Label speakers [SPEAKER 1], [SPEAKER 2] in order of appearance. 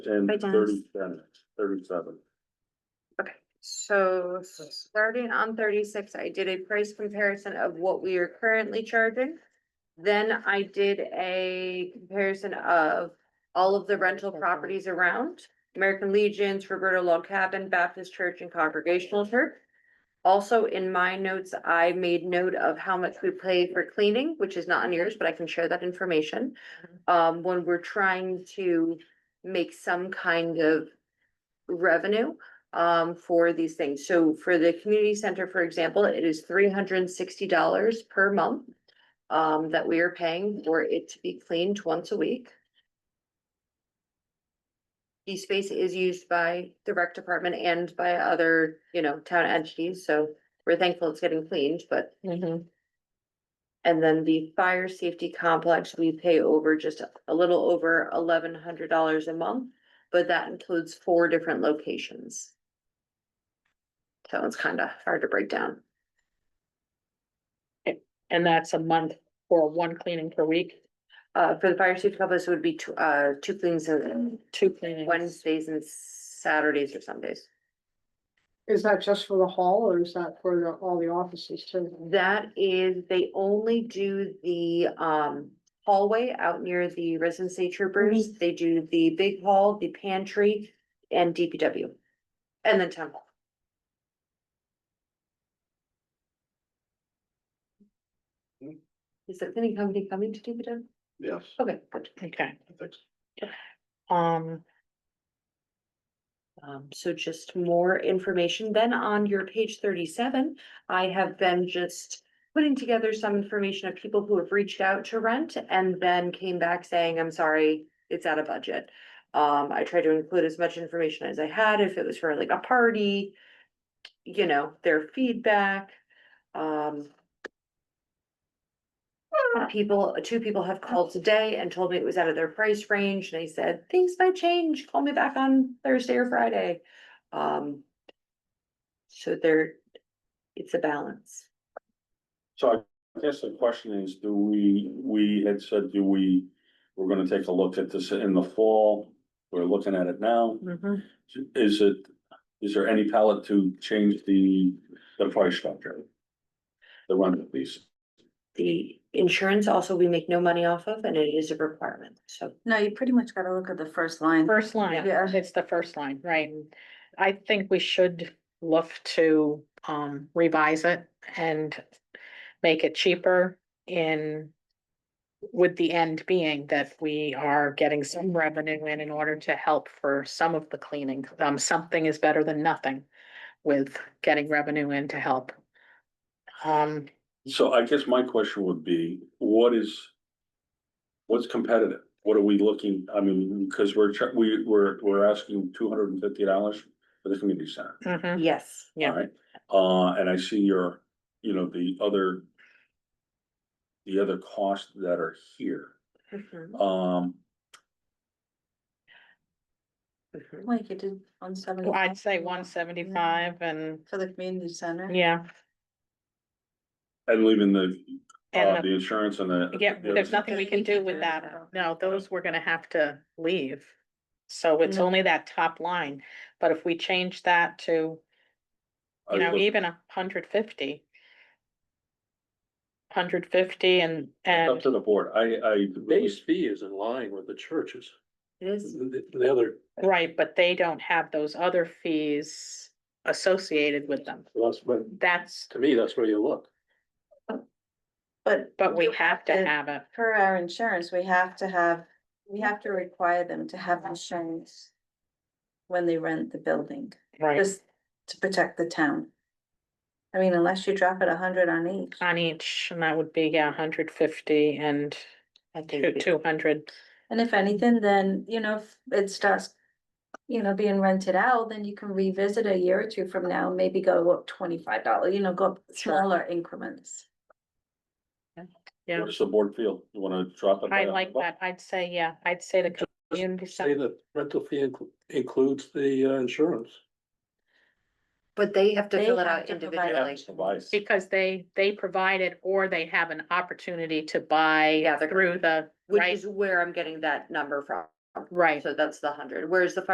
[SPEAKER 1] and
[SPEAKER 2] By Dennis.
[SPEAKER 1] thirty-seven, thirty-seven.
[SPEAKER 2] Okay, so starting on thirty-six, I did a price comparison of what we are currently charging. Then I did a comparison of all of the rental properties around. American Legions, Roberta Log Cabin, Baptist Church and Congregational Church. Also, in my notes, I made note of how much we pay for cleaning, which is not on yours, but I can share that information. Um, when we're trying to make some kind of revenue um, for these things. So for the community center, for example, it is three hundred and sixty dollars per month um, that we are paying for it to be cleaned once a week. The space is used by the rec department and by other, you know, town entities, so we're thankful it's getting cleaned, but. And then the fire safety complex, we pay over just a little over eleven hundred dollars a month, but that includes four different locations. So it's kind of hard to break down.
[SPEAKER 3] And that's a month or one cleaning per week,
[SPEAKER 2] Uh, for the fire safety complex, it would be two, uh, two cleans on
[SPEAKER 3] two cleanings.
[SPEAKER 2] Wednesdays and Saturdays or Sundays.
[SPEAKER 4] Is that just for the hall or is that for the, all the offices too?
[SPEAKER 2] That is, they only do the, um, hallway out near the residency troopers. They do the big hall, the pantry and DPW. And then town hall. Mm. Is there any company coming to DPW?
[SPEAKER 1] Yes.
[SPEAKER 2] Okay, good.
[SPEAKER 3] Okay,
[SPEAKER 1] I think so.
[SPEAKER 3] um,
[SPEAKER 2] Um, so just more information. Then on your page thirty-seven, I have been just putting together some information of people who have reached out to rent and then came back saying, I'm sorry, it's out of budget. Um, I tried to include as much information as I had, if it was for like a party, you know, their feedback, um. People, two people have called today and told me it was out of their price range. They said, things might change, call me back on Thursday or Friday. Um. So there, it's a balance.
[SPEAKER 1] So I guess the question is, do we, we had said, do we, we're gonna take a look at this in the fall? We're looking at it now.
[SPEAKER 3] mhm.
[SPEAKER 1] Is it, is there any palette to change the, the price structure? The run at least.
[SPEAKER 2] The insurance also, we make no money off of and it is a requirement, so.
[SPEAKER 5] No, you pretty much gotta look at the first line.
[SPEAKER 3] first line,
[SPEAKER 5] Yeah.
[SPEAKER 3] it's the first line, right? I think we should look to, um, revise it and make it cheaper in with the end being that we are getting some revenue in in order to help for some of the cleaning. Um, something is better than nothing with getting revenue in to help. Um,
[SPEAKER 1] So I guess my question would be, what is, what's competitive? What are we looking, I mean, because we're, tr- we, we're, we're asking two hundred and fifty dollars for the community center.
[SPEAKER 2] Mm-hmm.
[SPEAKER 3] mhm.
[SPEAKER 5] Mm-hmm.
[SPEAKER 2] Yes.
[SPEAKER 3] Yeah.
[SPEAKER 1] Alright, uh, and I see your, you know, the other. The other costs that are here,
[SPEAKER 2] Mhm,
[SPEAKER 1] um,
[SPEAKER 2] mhm.
[SPEAKER 5] Like you did one seventy.
[SPEAKER 3] Well, I'd
[SPEAKER 2] Mm-hmm.
[SPEAKER 3] say one seventy-five and,
[SPEAKER 5] For the community center.
[SPEAKER 3] yeah,
[SPEAKER 1] and leaving the, uh,
[SPEAKER 3] and the-
[SPEAKER 1] the insurance and the.
[SPEAKER 3] yeah,
[SPEAKER 1] the
[SPEAKER 3] there's
[SPEAKER 1] other-
[SPEAKER 3] nothing we can do with that. No, those we're gonna have to leave. So it's
[SPEAKER 5] No.
[SPEAKER 3] only that top line, but if we change that to,
[SPEAKER 1] I
[SPEAKER 3] you know,
[SPEAKER 1] looked
[SPEAKER 3] even a hundred fifty. Hundred fifty and,
[SPEAKER 1] Up
[SPEAKER 3] and,
[SPEAKER 1] to the board, I, I.
[SPEAKER 6] Base fee is in line with the churches,
[SPEAKER 2] It is,
[SPEAKER 6] the, the other,
[SPEAKER 3] right, but they don't have those other fees associated with them.
[SPEAKER 6] that's what,
[SPEAKER 3] That's,
[SPEAKER 6] to me, that's where you look.
[SPEAKER 5] But
[SPEAKER 3] but we have to
[SPEAKER 5] And-
[SPEAKER 3] have it.
[SPEAKER 5] for our insurance, we have to have, we have to require them to have insurance. When they rent the building,
[SPEAKER 3] Right.
[SPEAKER 5] just to protect the town. I mean, unless you drop it a hundred on each.
[SPEAKER 3] On each, and that would be, yeah, hundred fifty and
[SPEAKER 2] I think,
[SPEAKER 3] two hundred.
[SPEAKER 5] And if anything, then, you know, if it starts, you know, being rented out, then you can revisit a year or two from now, maybe go up twenty-five dollar, you know, go up
[SPEAKER 3] Sure.
[SPEAKER 5] smaller increments.
[SPEAKER 3] Yeah.
[SPEAKER 1] What does the board feel? You wanna drop it?
[SPEAKER 3] I like that. I'd say, yeah, I'd say the community
[SPEAKER 6] Say
[SPEAKER 3] center,
[SPEAKER 6] that rental fee inclu- includes the uh, insurance.
[SPEAKER 2] but they have to
[SPEAKER 5] They
[SPEAKER 2] fill it
[SPEAKER 5] have
[SPEAKER 2] out
[SPEAKER 5] to provide-
[SPEAKER 2] individually.
[SPEAKER 1] Advice.
[SPEAKER 3] because they, they provide it or they have an opportunity to buy
[SPEAKER 2] Yeah, they're-
[SPEAKER 3] through the,
[SPEAKER 2] Which
[SPEAKER 3] right?
[SPEAKER 2] is where I'm getting that number from,
[SPEAKER 3] right.
[SPEAKER 2] So that's the hundred, whereas the fire